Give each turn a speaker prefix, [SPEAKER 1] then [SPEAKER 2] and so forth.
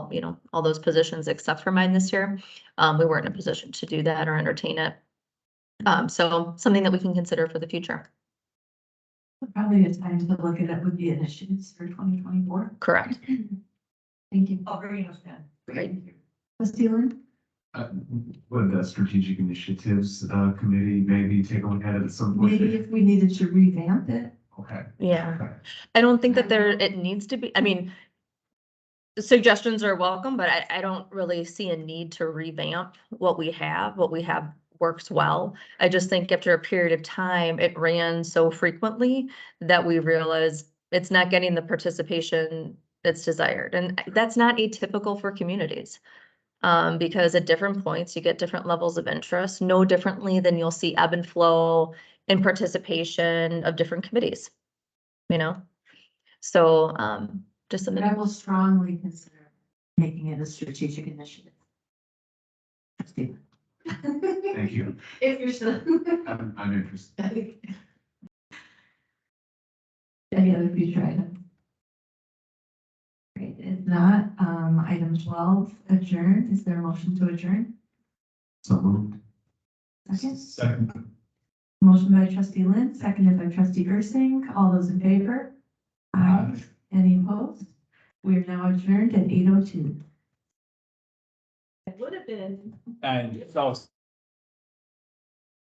[SPEAKER 1] you know, all those positions except for mine this year. Um, we weren't in a position to do that or entertain it. Um, so something that we can consider for the future.
[SPEAKER 2] Probably a time to look at it would be initiatives for twenty twenty-four.
[SPEAKER 1] Correct.
[SPEAKER 2] Thank you. Oh, very much, Dan.
[SPEAKER 1] Right.
[SPEAKER 2] Trustee Lynn?
[SPEAKER 3] Uh, Would the strategic initiatives, uh, committee maybe take a look at it at some point?
[SPEAKER 2] maybe if we needed to revamp it.
[SPEAKER 3] Okay.
[SPEAKER 1] Yeah. I don't think that there, it needs to be, I mean, suggestions are welcome, but I, I don't really see a need to revamp what we have, what we have works well. I just think after a period of time, it ran so frequently that we realized it's not getting the participation that's desired, and that's not atypical for communities. Um, because at different points, you get different levels of interest, no differently than you'll see ebb and flow in participation of different committees, you know? So, um, just
[SPEAKER 2] But
[SPEAKER 1] something.
[SPEAKER 2] I will strongly consider making it a strategic initiative. Trustee Lynn?
[SPEAKER 3] Thank you.
[SPEAKER 2] If you're still.
[SPEAKER 3] I'm, I'm interested.
[SPEAKER 2] Any other future item? Great, if not, um, item twelve, adjourn, is there a motion to adjourn?
[SPEAKER 3] So moved.
[SPEAKER 2] Second,
[SPEAKER 3] Second.
[SPEAKER 2] motion by trustee Lynn, seconded by trustee Ursink, all those in favor? Aye. Any opposed? We are now adjourned at eight oh two.
[SPEAKER 4] It would have been.
[SPEAKER 5] And so